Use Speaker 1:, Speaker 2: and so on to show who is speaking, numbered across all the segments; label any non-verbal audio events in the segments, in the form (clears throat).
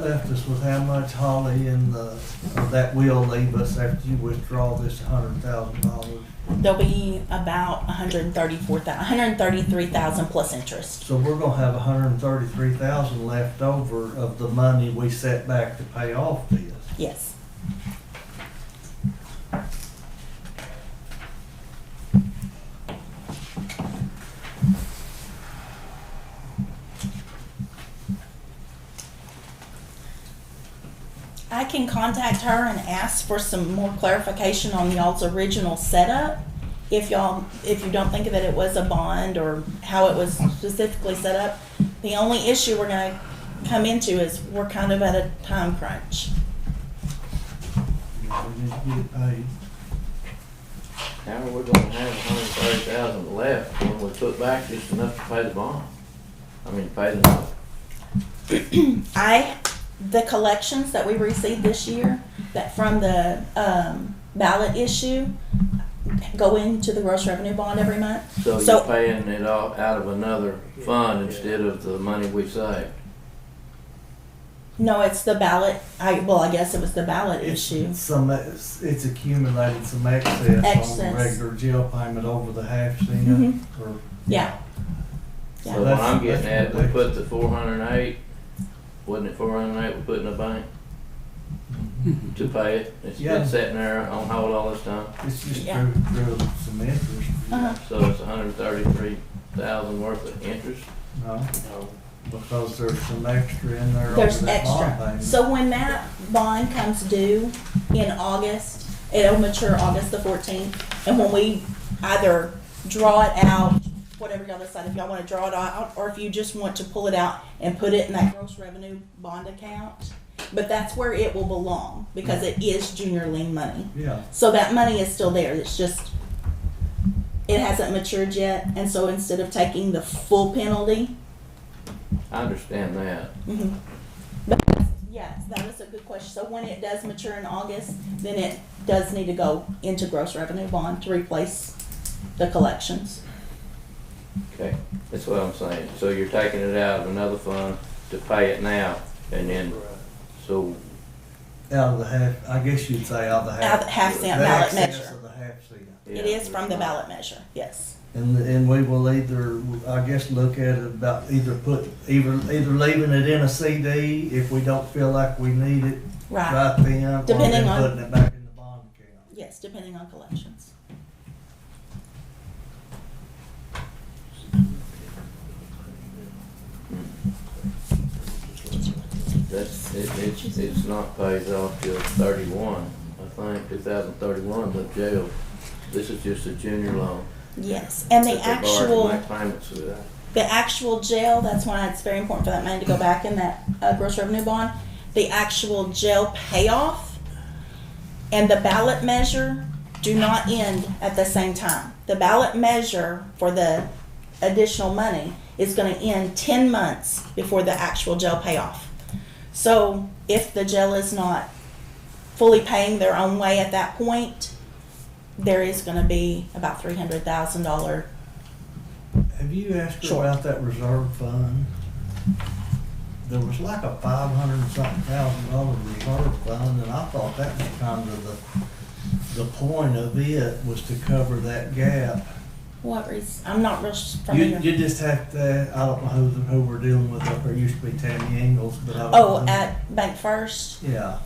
Speaker 1: left us with how much Holly and the, uh, that will leave us after you withdraw this hundred thousand dollars.
Speaker 2: There'll be about 134,000, 133,000 plus interest.
Speaker 1: So we're gonna have hundred and thirty-three thousand left over of the money we set back to pay off this.
Speaker 2: Yes. I can contact her and ask for some more clarification on y'all's original setup. If y'all, if you don't think that it was a bond or how it was specifically set up, the only issue we're gonna come into is we're kind of at a time crunch.
Speaker 1: We need to get it paid.
Speaker 3: How are we gonna have hundred and thirty thousand left when we put back just enough to pay the bond? I mean, pay the note.
Speaker 2: I, the collections that we received this year, that from the um, ballot issue, go into the gross revenue bond every month.
Speaker 3: So
Speaker 2: So-
Speaker 3: you're paying it all out of another fund instead of the money we saved.
Speaker 2: No, it's the ballot, I, well, I guess it was the ballot issue.
Speaker 1: It's some, it's it's accumulated some excess on the
Speaker 2: Excess.
Speaker 1: regular jail payment over the half cent
Speaker 2: Mhm.
Speaker 1: or
Speaker 2: Yeah.
Speaker 3: So what
Speaker 1: that's-
Speaker 3: I'm getting
Speaker 1: that's
Speaker 3: at, we
Speaker 1: what
Speaker 3: put the four hundred and eight, wasn't it four hundred and eight we put in the
Speaker 1: (laughs)
Speaker 3: bank? To pay it, it's
Speaker 1: Yeah.
Speaker 3: been sitting there on hold all this time,
Speaker 1: It's just
Speaker 2: Yeah.
Speaker 1: through, through some interest.
Speaker 2: Uh-huh.
Speaker 3: so it's hundred and thirty-three thousand worth of interest.
Speaker 1: No, because there's some extra in there over
Speaker 2: There's
Speaker 1: that bond
Speaker 2: extra.
Speaker 1: payment.
Speaker 2: So when that bond comes due in August, it'll mature August the fourteenth, and when we either draw it out, whatever y'all decide, if y'all wanna draw it out, or if you just want to pull it out and put it in that gross revenue bond account, but that's where it will belong, because it is junior lien money.
Speaker 1: Yeah,
Speaker 2: So that money is still there, it's just, it hasn't matured yet, and so instead of taking the full penalty,
Speaker 3: I understand that,
Speaker 2: Mhm. But that's- Yes, that is a good question. So when it does mature in August, then it does need to go into gross revenue bond to replace the collections.
Speaker 3: okay, that's what I'm saying, so you're taking it out of another fund to pay it now, and then, so
Speaker 1: out of the half, I guess you'd say out of the
Speaker 2: Out
Speaker 1: half.
Speaker 2: of the half cent
Speaker 1: the
Speaker 2: ballot
Speaker 1: excess
Speaker 2: measure.
Speaker 1: of the half cent.
Speaker 2: It
Speaker 3: Yeah.
Speaker 2: is from the ballot measure, yes.
Speaker 1: And, and we will either, I guess, look at it about either put, either, either leaving it in a CD if we don't feel like we need it
Speaker 2: Right,
Speaker 1: right then, or
Speaker 2: Depending
Speaker 1: then
Speaker 2: on-
Speaker 1: putting it back in the bond account.
Speaker 2: yes, depending on collections.
Speaker 3: That's, it, it's, it's not paid off till thirty-one, I think, two thousand thirty-one, the jail. This is just a junior loan.
Speaker 2: Yes, and the
Speaker 3: that they borrowed
Speaker 2: actual,
Speaker 3: to Make payments with that.
Speaker 2: the actual jail, that's why it's very important for that money to go back in that uh, gross revenue bond. The actual jail payoff and the ballot measure do not end at the same time. The ballot measure for the additional money is going to end 10 months before the actual jail payoff. So if the jail is not fully paying their own way at that point, there is going to be about $300,000
Speaker 1: Have you asked her
Speaker 2: Sure.
Speaker 1: about that reserve fund? There was like a five hundred and something thousand dollar reserve fund, and I thought that was kind of the, the point of it was to cover that gap.
Speaker 2: What reason? I'm not real s-
Speaker 1: You,
Speaker 2: familiar.
Speaker 1: you just have to, I don't know who, the- who we're dealing with up there, It used to be Tammy Ingles, but I. don't
Speaker 2: oh,
Speaker 1: know.
Speaker 2: at Bank First,
Speaker 1: Yeah,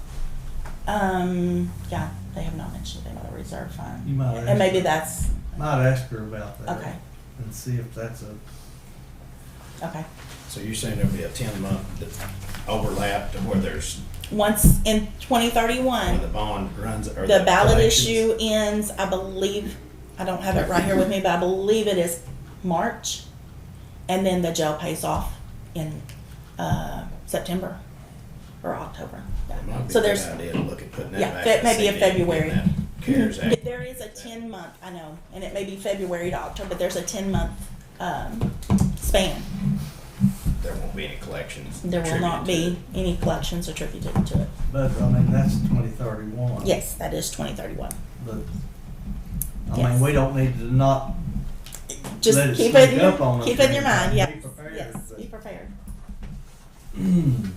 Speaker 2: um, yeah, they have not mentioned anything about a reserve fund,
Speaker 1: you might ask.
Speaker 2: and maybe
Speaker 1: her-
Speaker 2: that's
Speaker 1: Might ask her about that.
Speaker 2: okay.
Speaker 1: And see if that's a,
Speaker 2: Okay.
Speaker 4: So you're saying there'll be a ten month overlap to where there's,
Speaker 2: Once in
Speaker 4: when the
Speaker 2: 2031,
Speaker 4: bond runs or the.
Speaker 2: the ballot
Speaker 4: collections-
Speaker 2: issue ends. I believe I don't have it right here with me, but I believe it is March, and then the jail pays off in uh, September or October. Yeah.
Speaker 4: It might be
Speaker 2: So
Speaker 4: a good
Speaker 2: there's
Speaker 4: idea to look at putting that
Speaker 2: yeah,
Speaker 4: back.
Speaker 2: fe-
Speaker 4: in
Speaker 2: maybe in
Speaker 4: CD, getting
Speaker 2: February.
Speaker 4: that CARES
Speaker 2: Mhm.
Speaker 4: Act.
Speaker 2: There is a ten month, I know, and it may be February to October, but there's a ten month, um, span.
Speaker 4: There won't be any collections.
Speaker 2: There will not be
Speaker 4: attributed
Speaker 2: any collections attributed to it.
Speaker 1: but I mean, that's twenty thirty-one.
Speaker 2: Yes, that is twenty thirty-one.
Speaker 1: But, I
Speaker 2: Yes.
Speaker 1: mean, we don't need to not (clears throat)
Speaker 2: Just
Speaker 1: Let it
Speaker 2: keep it, in
Speaker 1: sneak up
Speaker 2: your-
Speaker 1: on us
Speaker 2: keep it in your
Speaker 1: and
Speaker 2: mind,
Speaker 1: be
Speaker 2: yes,
Speaker 1: prepared,
Speaker 2: yes,
Speaker 1: but-
Speaker 2: be prepared.
Speaker 1: Mm.